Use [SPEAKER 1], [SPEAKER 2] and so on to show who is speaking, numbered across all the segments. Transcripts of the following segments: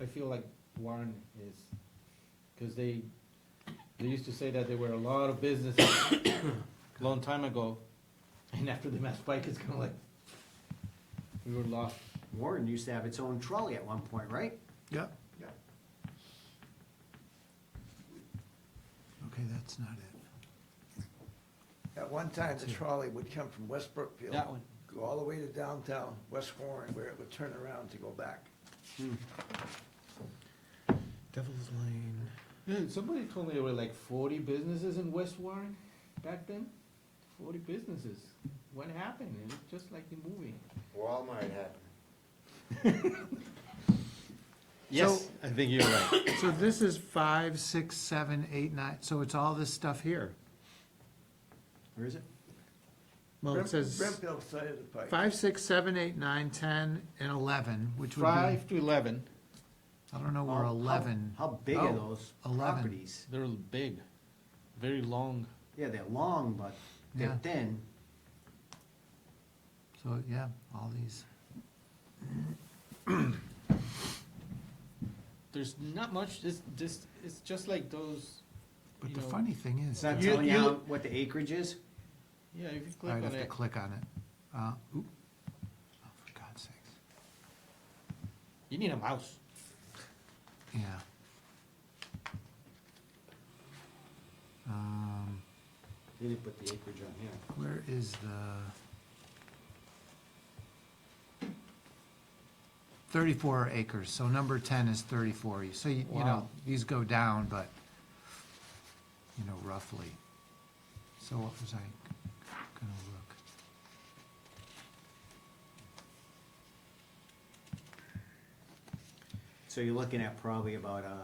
[SPEAKER 1] I feel like Warren is, cause they, they used to say that there were a lot of businesses long time ago, and after the mass spike, it's kinda like, we were lost.
[SPEAKER 2] Warren used to have its own trolley at one point, right?
[SPEAKER 3] Yeah,
[SPEAKER 2] Yeah.
[SPEAKER 3] okay, that's not it.
[SPEAKER 4] At one time, the trolley would come from West Brookfield.
[SPEAKER 1] That one.
[SPEAKER 4] Go all the way to downtown, West Warren, where it would turn around to go back.
[SPEAKER 3] Devil's Lane.
[SPEAKER 1] Yeah, somebody told me there were like forty businesses in West Warren back then, forty businesses. What happened? It was just like the movie.
[SPEAKER 5] Walmart happened.
[SPEAKER 3] Yes,
[SPEAKER 1] I think you're right.
[SPEAKER 3] So this is five, six, seven, eight, nine, so it's all this stuff here.
[SPEAKER 2] Where is it?
[SPEAKER 3] Well,
[SPEAKER 4] Brim-
[SPEAKER 3] it says
[SPEAKER 4] Brimfield side of the pike.
[SPEAKER 3] five, six, seven, eight, nine, ten, and eleven, which would be, I
[SPEAKER 1] Five to eleven,
[SPEAKER 3] don't know
[SPEAKER 2] Oh,
[SPEAKER 3] where
[SPEAKER 2] How-
[SPEAKER 3] Oh, eleven.
[SPEAKER 2] How big are
[SPEAKER 3] Oh,
[SPEAKER 2] those
[SPEAKER 3] 11.
[SPEAKER 2] properties?
[SPEAKER 1] they're big, very long.
[SPEAKER 2] Yeah, they're long, but they're
[SPEAKER 3] Yeah.
[SPEAKER 2] thin.
[SPEAKER 3] So, yeah, all these.
[SPEAKER 1] There's not much, it's, this, it's just like those,
[SPEAKER 3] But
[SPEAKER 1] You
[SPEAKER 3] the
[SPEAKER 1] know,
[SPEAKER 3] funny thing is,
[SPEAKER 2] It's not
[SPEAKER 1] You-
[SPEAKER 2] telling you
[SPEAKER 1] you-
[SPEAKER 2] how- what the acreage is?
[SPEAKER 1] yeah, if you click
[SPEAKER 3] I'd
[SPEAKER 1] on
[SPEAKER 3] have to
[SPEAKER 1] it,
[SPEAKER 3] click on it. Uh, oop. Oh, for God's sakes.
[SPEAKER 1] you need a mouse.
[SPEAKER 3] Yeah. Um,
[SPEAKER 2] They didn't put the acreage on here.
[SPEAKER 3] where is the? Thirty-four acres, so number ten is thirty-four, so you, you know,
[SPEAKER 1] Wow.
[SPEAKER 3] these go down, but, you know, roughly. So what was I gonna look?
[SPEAKER 2] So you're looking at probably about uh,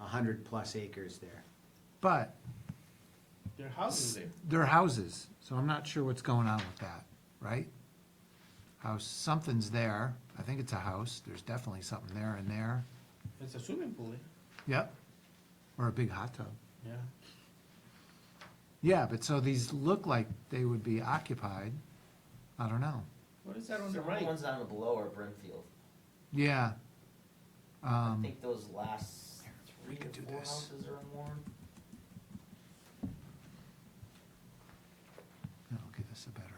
[SPEAKER 2] a hundred plus acres there.
[SPEAKER 3] But,
[SPEAKER 1] Their house is there.
[SPEAKER 3] they're houses, so I'm not sure what's going on with that, right? House, something's there, I think it's a house, there's definitely something there and there,
[SPEAKER 1] It's a swimming pool, eh?
[SPEAKER 3] yep, or a big hot tub.
[SPEAKER 1] Yeah.
[SPEAKER 3] Yeah, but so these look like they would be occupied, I don't know,
[SPEAKER 1] What is that on
[SPEAKER 6] So
[SPEAKER 1] the right?
[SPEAKER 6] The ones down below are Brimfield.
[SPEAKER 3] yeah.
[SPEAKER 6] I
[SPEAKER 3] Um,
[SPEAKER 6] think those last three
[SPEAKER 3] can
[SPEAKER 6] or
[SPEAKER 3] do
[SPEAKER 6] four
[SPEAKER 3] this.
[SPEAKER 6] houses are in Warren.
[SPEAKER 3] that'll give us a better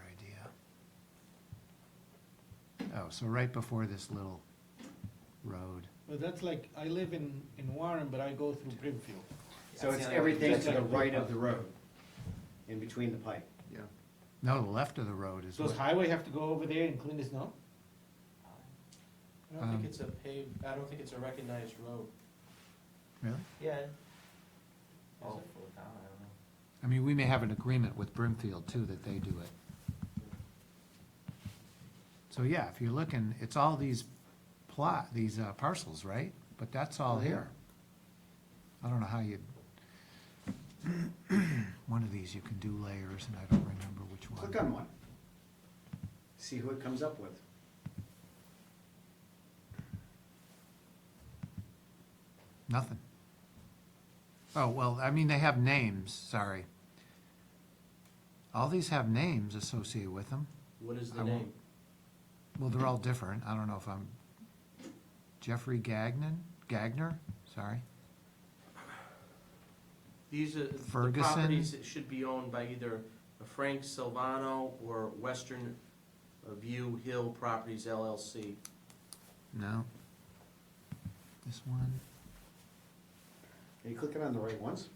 [SPEAKER 3] idea. Oh, so right before this little road,
[SPEAKER 1] Well, that's like, I live in, in Warren, but I go through Brimfield.
[SPEAKER 2] So
[SPEAKER 6] That's
[SPEAKER 2] it's
[SPEAKER 6] the only way
[SPEAKER 2] everything to
[SPEAKER 6] do
[SPEAKER 2] the right of the road, in between the pipe.
[SPEAKER 4] Yeah.
[SPEAKER 3] no, the left of the road is
[SPEAKER 1] Does
[SPEAKER 3] what,
[SPEAKER 1] highway have to go over there and clean the snow?
[SPEAKER 7] I don't
[SPEAKER 3] Um,
[SPEAKER 7] think it's a paved, I don't think it's a recognized road.
[SPEAKER 3] really?
[SPEAKER 6] it. Yeah. Oh, well, down, I don't know.
[SPEAKER 3] I mean, we may have an agreement with Brimfield too, that they do it. So yeah, if you're looking, it's all these plot, these uh, parcels, right? But that's all
[SPEAKER 2] Mm-hmm.
[SPEAKER 3] here. I don't know how you, one of these you can do layers and I don't remember which one.
[SPEAKER 2] Click on one. See who it comes up with.
[SPEAKER 3] Nothing. Oh, well, I mean, they have names, sorry. All these have names associated with them.
[SPEAKER 7] What is
[SPEAKER 3] I
[SPEAKER 7] the
[SPEAKER 3] won't-
[SPEAKER 7] name?
[SPEAKER 3] Well, they're all different. I don't know if I'm Jeffrey Gagnon, Gagner, sorry.
[SPEAKER 7] These are, the
[SPEAKER 3] Ferguson?
[SPEAKER 7] properties that should be owned by either Frank Silvano or Western View Hill Properties LLC.
[SPEAKER 3] No. This one,
[SPEAKER 2] Are you clicking on the right ones?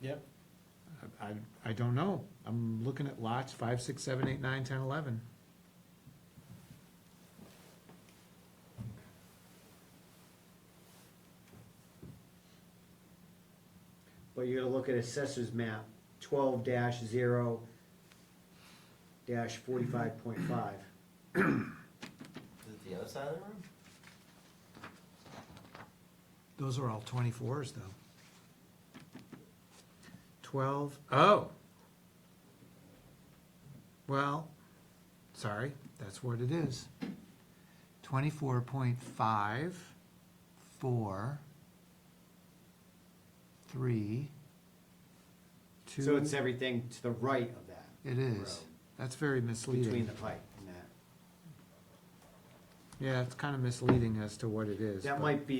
[SPEAKER 1] Yep.
[SPEAKER 3] I, I- I don't know. I'm looking at lots five, six, seven, eight, nine, ten, eleven.
[SPEAKER 2] But you gotta look at assessor's map, twelve dash zero dash forty-five point five.
[SPEAKER 6] Is it the other side of the road?
[SPEAKER 3] Those are all twenty-fours though. Twelve, oh. Well, sorry, that's what it is. Twenty-four point five, four, three, two.
[SPEAKER 2] So it's everything to the right of that,
[SPEAKER 3] It is. That's very misleading.
[SPEAKER 2] between the pipe and that.
[SPEAKER 3] Yeah, it's kind of misleading as to what it is.
[SPEAKER 2] That
[SPEAKER 3] but-
[SPEAKER 2] might be